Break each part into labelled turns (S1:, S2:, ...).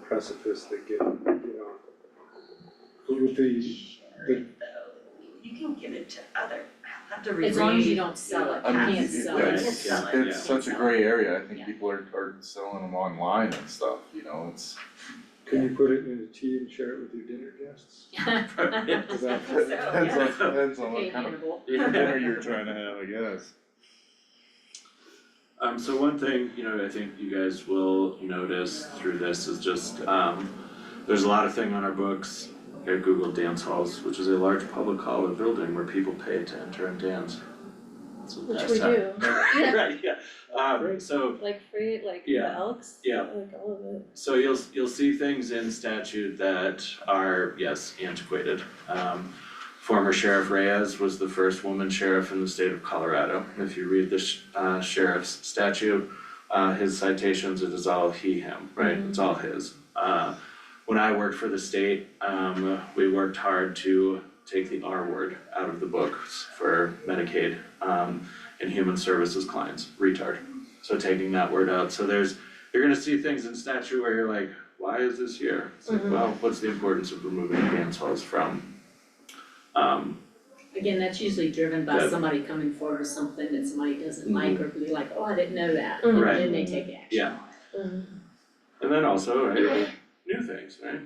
S1: precipice that get, you know, with the, the,
S2: You can give it to other, I'll have to reread.
S3: As long as you don't sell it,
S4: I
S3: you
S4: mean,
S3: can't
S4: it- it-
S3: sell
S2: yeah,
S3: it.
S4: it's,
S2: Sell it,
S4: it's such a gray area, I think
S3: Yeah.
S4: people are, are selling them online and stuff, you know, it's.
S1: can you put it in a tea and share it with your dinner guests?
S5: Um,
S1: Is that-
S2: So,
S4: Depends on, depends on
S3: Okay,
S4: what kind of
S3: Hannibal.
S4: dinner you're trying to have, I guess.
S5: Um, so one thing, you know, I think you guys will notice through this is just, um, there's a lot of thing on our books at Google Dance Halls, which is a large public hall or building where people pay to enter and dance. It's a
S6: Which we
S5: pastime.
S6: do,
S5: Right, yeah, um, so
S6: like free, like the
S5: Yeah.
S6: elks,
S5: Yeah.
S6: like all of it.
S5: so you'll you'll see things in statute that are, yes, antiquated. Um former Sheriff Reyes was the first woman sheriff in the state of Colorado. If you read the sh- uh sheriff's statute, uh his citations, it is all he, him, right? It's all his. Uh when I worked for the state, um we worked hard to take the R word out of the books for Medicaid um and human services clients, retard. So taking that word out, so there's you're gonna see things in statute where you're like, why is this here? It's like, well, what's the importance of removing dance halls from? Um,
S3: Again, that's usually driven by
S5: Yeah.
S3: somebody coming forward with something that somebody doesn't like or be like, oh, I didn't know that.
S6: Mhm.
S5: Right.
S3: And then they take action.
S5: Yeah. and then also, right, like, new things, right?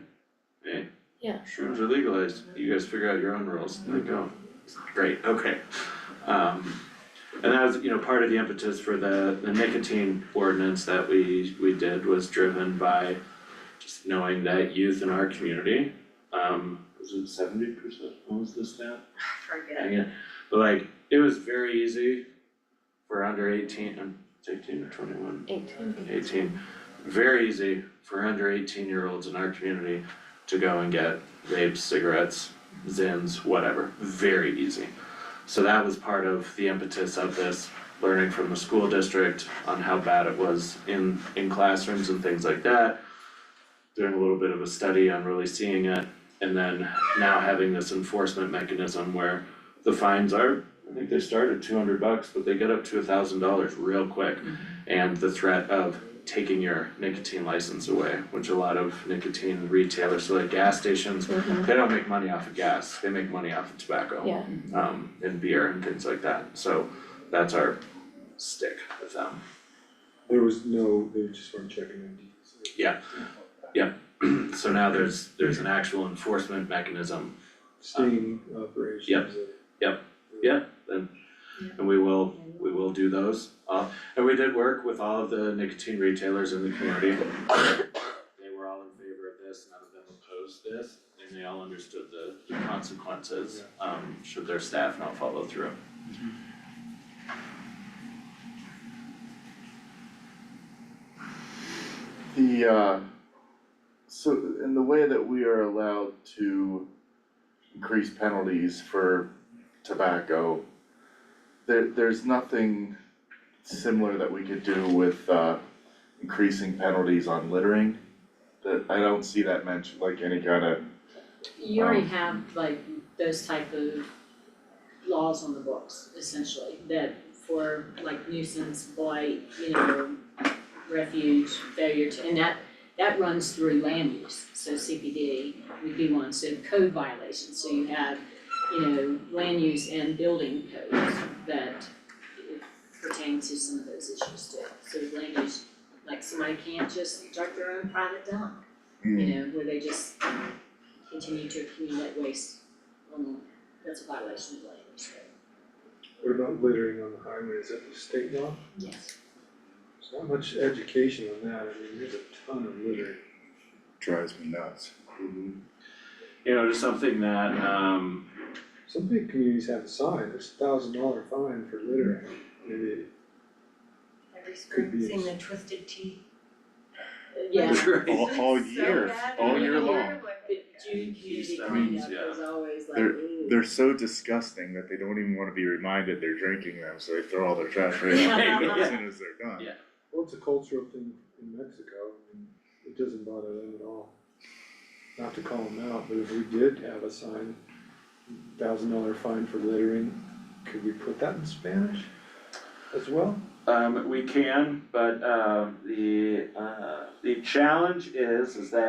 S5: Hey.
S6: Yeah.
S5: Shrooms are legalized, you guys figure out your own rules, there you go. Great, okay. Um, and that was, you know, part of the impetus for the the nicotine ordinance that we we did was driven by just knowing that youth in our community, um, was it seventy percent, what was the stat?
S2: Forget.
S5: Hang it. But like, it was very easy for under eighteen, um, it's eighteen or twenty-one,
S6: Eighteen.
S5: eighteen, very easy for under eighteen year olds in our community to go and get vapes, cigarettes, zins, whatever, very easy. So that was part of the impetus of this, learning from the school district on how bad it was in in classrooms and things like that. Doing a little bit of a study on really seeing it, and then now having this enforcement mechanism where the fines are, I think they start at two hundred bucks, but they get up to a thousand dollars real quick. And the threat of taking your nicotine license away, which a lot of nicotine retailers, so like gas stations,
S6: Mhm.
S5: they don't make money off of gas, they make money off of tobacco
S6: Yeah,
S5: um and beer and things like that, so that's our stick with them.
S1: There was no, they just weren't checking on these.
S5: Yeah. So now there's there's an actual enforcement mechanism
S1: Sting operations.
S5: Yep.
S1: and-
S5: Yep. Yep. and and we will, we will do those. Uh and we did work with all of the nicotine retailers in the community. They were all in favor of this, none of them opposed this, and they all understood the the consequences um should their staff not follow through.
S4: The, uh, so in the way that we are allowed to increase penalties for tobacco, there, there's nothing similar that we could do with, uh, increasing penalties on littering. That, I don't see that mentioned, like any kind of,
S3: You already have like those type of laws on the books essentially, that for like nuisance, blight, you know, refuge, failure to, and that, that runs through land use, so CPD would be one, so code violations, so you have, you know, land use and building codes that pertain to some of those issues too. So land use, like somebody can't just junk their own private dump, you know, where they just continue to accumulate waste on, that's a violation of land use code.
S1: What about littering on the highway, is that the state law?
S3: Yes.
S1: There's not much education on that, I mean, there's a ton of littering.
S7: drives me nuts.
S5: You know, just something that um
S1: Some big communities have a sign, there's a thousand dollar fine for littering, maybe,
S2: Every
S1: Could
S2: spring,
S1: be.
S2: seeing the twisted tea.
S3: Yeah,
S5: Right.
S7: All, all year, all year long.
S3: but June community
S5: Keystone,
S3: cleanup
S5: yeah.
S3: is always like,
S7: They're-
S3: ooh.
S7: They're so disgusting that they don't even wanna be reminded they're drinking them, so they throw all their trash right out the window as soon as they're done.
S5: Yeah.
S1: well, it's a cultural thing in Mexico, and it doesn't bother them at all. Not to call them out, but if we did have a sign, thousand dollar fine for littering, could we put that in Spanish as well?
S5: Um, we can, but um, the uh, the uh, challenge is, is that